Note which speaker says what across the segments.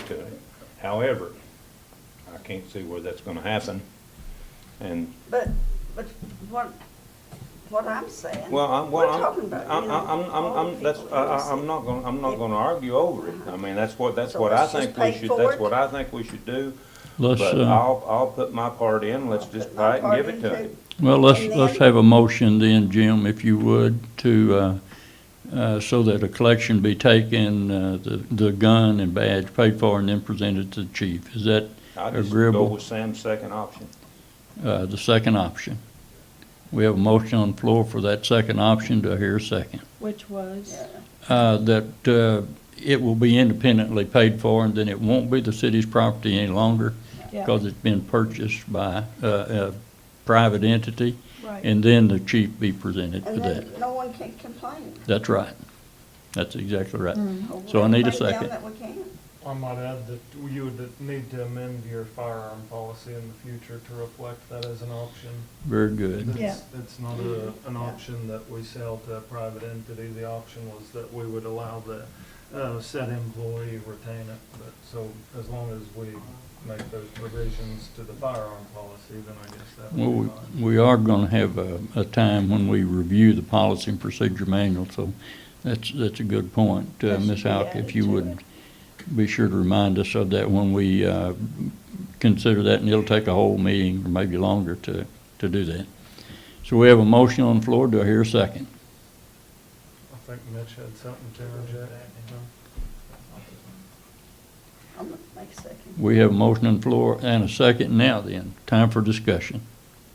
Speaker 1: to it. However, I can't see where that's gonna happen. And,
Speaker 2: But, but what, what I'm saying.
Speaker 1: well, I'm,
Speaker 2: we're
Speaker 1: well,
Speaker 2: talking
Speaker 1: I'm,
Speaker 2: about,
Speaker 1: I'm,
Speaker 2: you know,
Speaker 1: I'm, I'm,
Speaker 2: all the
Speaker 1: I'm, that's,
Speaker 2: people
Speaker 1: I,
Speaker 2: in the
Speaker 1: I- I'm not gonna, I'm not gonna argue over it. I mean, that's what, that's
Speaker 2: So
Speaker 1: what I
Speaker 2: let's just
Speaker 1: think we
Speaker 2: pay
Speaker 1: should,
Speaker 2: for
Speaker 1: that's
Speaker 2: it.
Speaker 1: what I think we should do.
Speaker 3: Let's,
Speaker 1: But
Speaker 3: uh,
Speaker 1: I'll, I'll put my part in, let's
Speaker 2: city.
Speaker 1: just buy it and give it to him.
Speaker 3: well, let's,
Speaker 2: and
Speaker 3: let's
Speaker 2: then-
Speaker 3: have a motion then, Jim, if you would, to, uh, uh, so that a collection be taken, uh, the, the gun and badge paid for and then presented to the chief. Is that,
Speaker 1: I just go
Speaker 3: Agreeable.
Speaker 1: with Sam's second option.
Speaker 3: uh, the second option? We have a motion on the floor for that second option. Do I hear a second?
Speaker 4: Which was?
Speaker 3: Uh, that, uh, it will be independently paid for and then it won't be the city's property any longer
Speaker 4: Yeah,
Speaker 3: because it's been purchased by, uh, a private entity.
Speaker 4: right.
Speaker 3: And then the chief be presented for
Speaker 2: And
Speaker 3: that.
Speaker 2: then no one can complain.
Speaker 3: That's right. That's exactly right.
Speaker 4: Mm-hmm.
Speaker 2: We'll
Speaker 3: So I need a
Speaker 2: break down
Speaker 3: second.
Speaker 2: that we can.
Speaker 5: I might add that you would need to amend your firearm policy in the future to reflect that as an option.
Speaker 3: Very good.
Speaker 5: That's- It's not a, an option that we sell to a private entity. The option was that we would allow the, uh, said employee retain it. But, so as long as we make those provisions to the firearm policy, then I guess that
Speaker 3: Well,
Speaker 5: would be
Speaker 3: we-
Speaker 5: fine.
Speaker 3: we are going to have a, a time when we review the policy and procedure manual, so that's, that's a good point. Uh,
Speaker 4: That should
Speaker 3: Ms.
Speaker 4: be
Speaker 3: Houck,
Speaker 4: added
Speaker 3: if you
Speaker 4: to
Speaker 3: would be sure to remind us of that when we uh, consider that, and it'll take a whole meeting or maybe longer to, to do that. So we have a motion on the floor. Do I hear a second?
Speaker 5: I think Mitch had something to interject.
Speaker 2: I'm gonna make a second.
Speaker 3: We have a motion on the floor and a second now then. Time for discussion.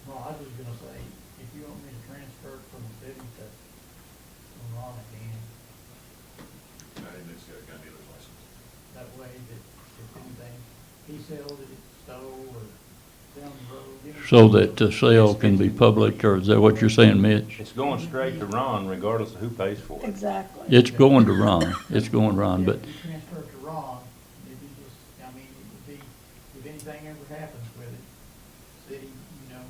Speaker 6: Well, I was just gonna say, if you want me to transfer it from the city to Ron again, that way that if anything, he sells it, it's stole, or down the road. you know,
Speaker 3: So that the sale can be public, or is that what you're saying, Mitch?
Speaker 1: It's going straight to Ron regardless of who pays for it.
Speaker 4: Exactly.
Speaker 3: It's going to Ron, it's going Ron, but
Speaker 6: If you transfer it to Ron, if you just, I mean, it would be, if anything ever happens with it, city, you know,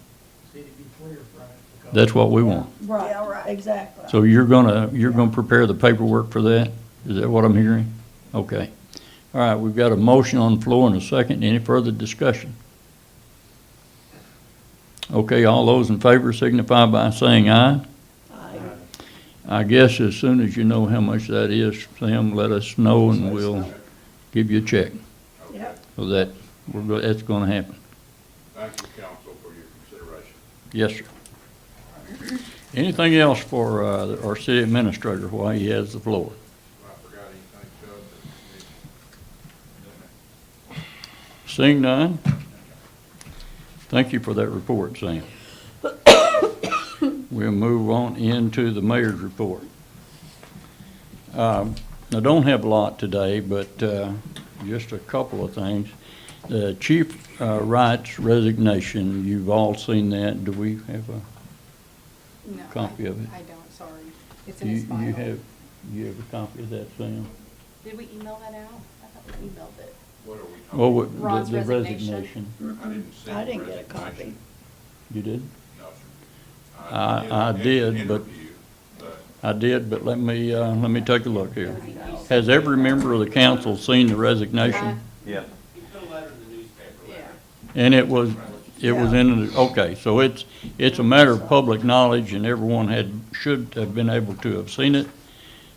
Speaker 6: city be clear from it. because-
Speaker 3: that's what we want.
Speaker 2: Yeah, right.
Speaker 4: Right, exactly.
Speaker 3: So you're gonna, you're gonna prepare the paperwork for that? Is that what I'm hearing? Okay. All right, we've got a motion on the floor and a second. Any further discussion? Okay, all those in favor signify by saying aye.
Speaker 4: Aye.
Speaker 3: I guess as soon as you know how much that is, Sam, let us know and we'll give you a check.
Speaker 4: Yep.
Speaker 3: So that, we're, go- that's gonna happen.
Speaker 7: Thank you, council, for your consideration.
Speaker 3: Yes, sir. Anything else for uh, our city administrator while he has the floor?
Speaker 7: If I forgot anything, Chubb, then-
Speaker 3: Seeing none, thank you for that report, Sam. We'll move on into the mayor's report. Um, I don't have a lot today, but uh, just a couple of things. The Chief uh, Wright's resignation, you've all seen that. Do we have a?
Speaker 8: No,
Speaker 3: copy
Speaker 8: I-
Speaker 3: of it?
Speaker 8: I don't, sorry. It's in
Speaker 3: You
Speaker 8: his file.
Speaker 3: you have, you have a copy of that, Sam?
Speaker 8: Did we email that out? I thought we emailed it.
Speaker 7: What are we
Speaker 3: Well,
Speaker 7: talking?
Speaker 3: what- the-
Speaker 8: Ron's
Speaker 3: the
Speaker 8: resignation.
Speaker 7: I didn't see
Speaker 4: I didn't get a
Speaker 7: resignation.
Speaker 4: copy.
Speaker 3: You did?
Speaker 7: No, sir.
Speaker 3: I- I did, but-
Speaker 7: interview, but
Speaker 3: I did, but let me, uh, let me take a look here. Has every member of the council seen the
Speaker 8: Uh,
Speaker 3: resignation?
Speaker 1: Yeah.
Speaker 8: Yeah.
Speaker 3: And it was, it was in, the okay, so it's, it's a matter of public knowledge and everyone had, should have been able to have seen it.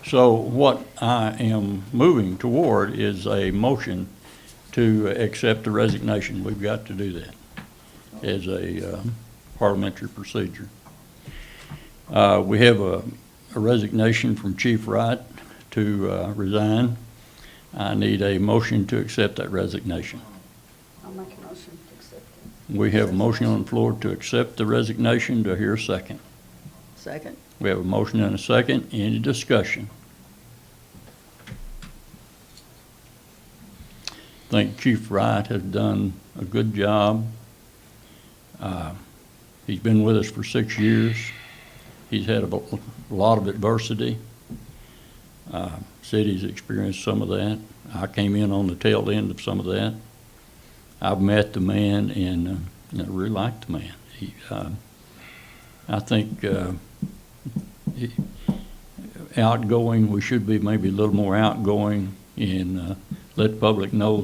Speaker 3: So what I am moving toward is a motion to accept the resignation. We've got to do that as a uh, parliamentary procedure. Uh, We have a a resignation from Chief Wright to uh, resign. I need a motion to accept that resignation.
Speaker 2: I'll make a motion to accept it.
Speaker 3: We have a motion on the floor to accept the resignation. Do I hear a second?
Speaker 4: Second?
Speaker 3: We have a motion and a second. Any discussion? I think Chief Wright has done a good job. Uh, He's been with us for six years. He's had a bo- lot of adversity. Uh, City's experienced some of that. I came in on the tail end of some of that. I've met the man and uh, and I really like the man. He, uh, I think uh, he- outgoing, we should be maybe a little more outgoing and uh, let the public know